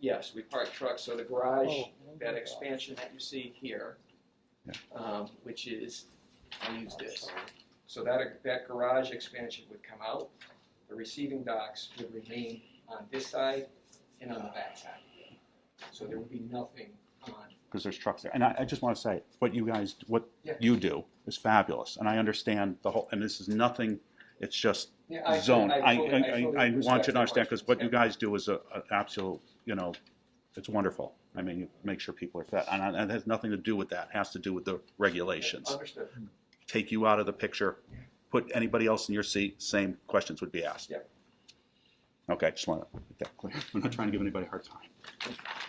yes, we park trucks, so the garage, Oh, that expansion that you see here, Yeah. um, which is, I'll use this. So that, that garage expansion would come out, the receiving docks would remain on this side and on the back side. So there would be nothing on, because there's trucks there. And I, I just want to say, what you guys, what Yeah. you do is fabulous, and I understand the whole. And this is nothing; it's just yeah, I. zone. I, fully- I, fully I, I want you respect to the understand because what you questions, guys do is a, a absolute, you know, it's wonderful. I mean, you make sure people are fed, and, I- and it has nothing to do with that. It has to do with the yeah. regulations. Understood, Take you out of the picture. Put anybody else in your seat. Same questions would be asked. Yeah. Okay, I just want to make that clear. I'm not trying to give anybody a hard time.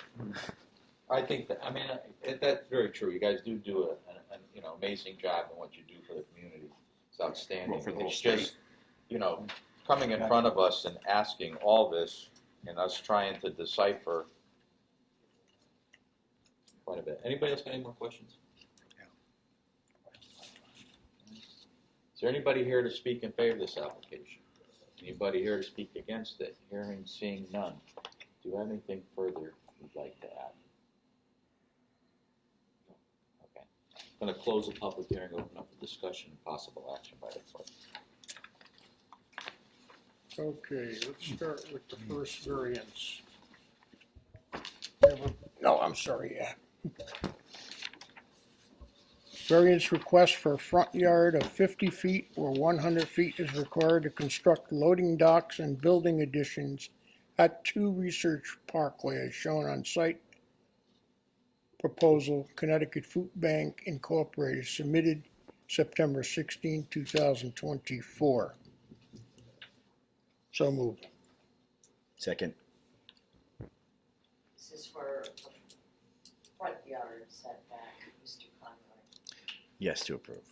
I think that, I mean, uh, it, that's very true. You guys do do a, an, an, you know, amazing job in what you do for the community. It's outstanding. Well, for the whole It's just, you know, coming in front of us and asking all this and us trying to decipher quite a bit. Anybody else got any more questions? Is there anybody here to speak in favor of this application? Anybody here to speak against it? Hearing, seeing none. Do you have anything further you'd like to add? Okay. I'm Going to close the public hearing, open up the discussion, and possible action by the clerk. Okay, let's start with the first variance. No, I'm sorry, yeah. Variance request for a front yard of fifty feet where one hundred feet is required to construct loading docks and building additions at two Research Parkway as shown on site proposal Connecticut Food Bank Incorporated submitted September 16, 2024. So moved. Second. This is for the front yard setback, Mr. Conroy. Yes to approve.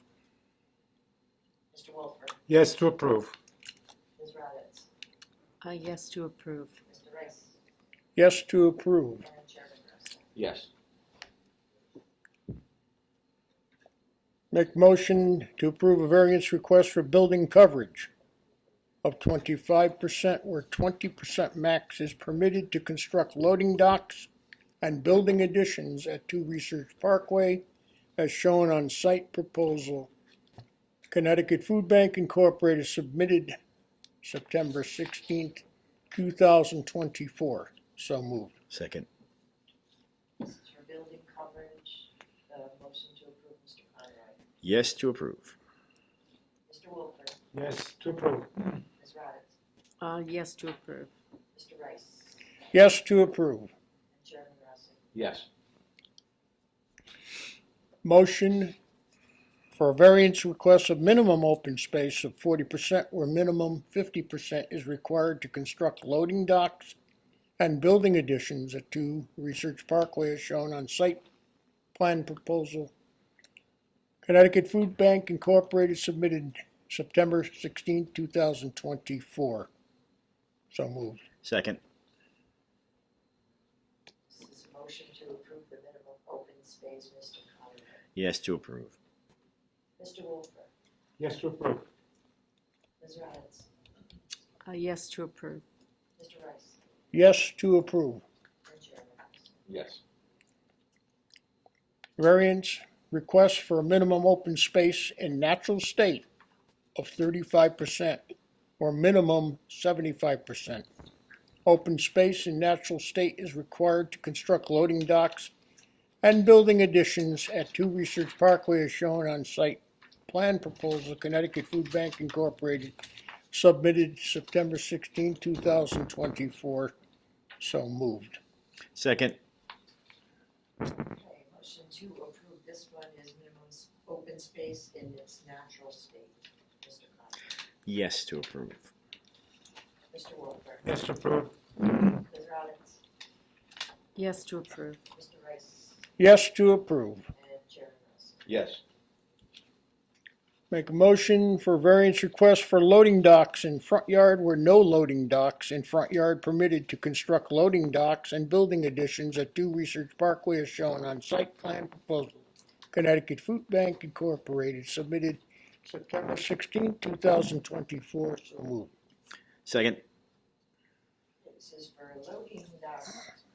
Mr. Wolfert, Yes, to approve. Ms. Roberts, Uh, yes to approve. Mr. Rice, Yes to approve. and Chairman Russell. Yes. Make motion to approve a variance request for building coverage of twenty-five percent where twenty percent max is permitted to construct loading docks and building additions at Two Research Parkway as shown on site proposal. Connecticut Food Bank Incorporated submitted September sixteenth, two thousand twenty-four. So moved. Second. This is for building coverage, the motion to approve, Mr. Conroy. Yes to approve. Mr. Wolfert, Yes, to approve. Ms. Roberts, Uh, yes to approve. Mr. Rice, Yes to approve. and Chairman Russell. Yes. Motion for a variance request of minimum open space of forty percent where minimum fifty percent is required to construct loading docks and building additions at two Research Parkway as shown on site plan proposal. Connecticut Food Bank Incorporated submitted September 16, thousand twenty-four. So moved. Second. This is a motion to approve the minimum open space, Mr. Conroy. Yes to approve. Mr. Wolfert, Yes, to approve. Ms. Roberts, Uh, yes to approve. Mr. Rice, Yes to approve. and Chairman Russell. Yes. Variance request for a minimum open space in natural state of thirty-five percent or minimum seventy-five percent. Open space in natural state is required to construct loading docks and building additions at Two Research Parkway as shown on site. Plan proposal Connecticut Food Bank Incorporated submitted September 16, thousand twenty-four. So moved. Second. Okay, motion to approve this one is minimum s- open space in its natural state. Mr. Conroy, Yes to approve. Mr. Wolfert, Yes, to approve. Ms. Roberts, Yes to approve. Mr. Rice, Yes to approve. and Chairman Russell. Yes. Make a motion for variance request for loading docks in front yard where no loading docks in front yard permitted to construct loading docks and building additions at Two Research Parkway as shown on site plan proposal. Connecticut Food Bank Incorporated submitted September 16, thousand twenty-four. So moved. Second. This is for loading dock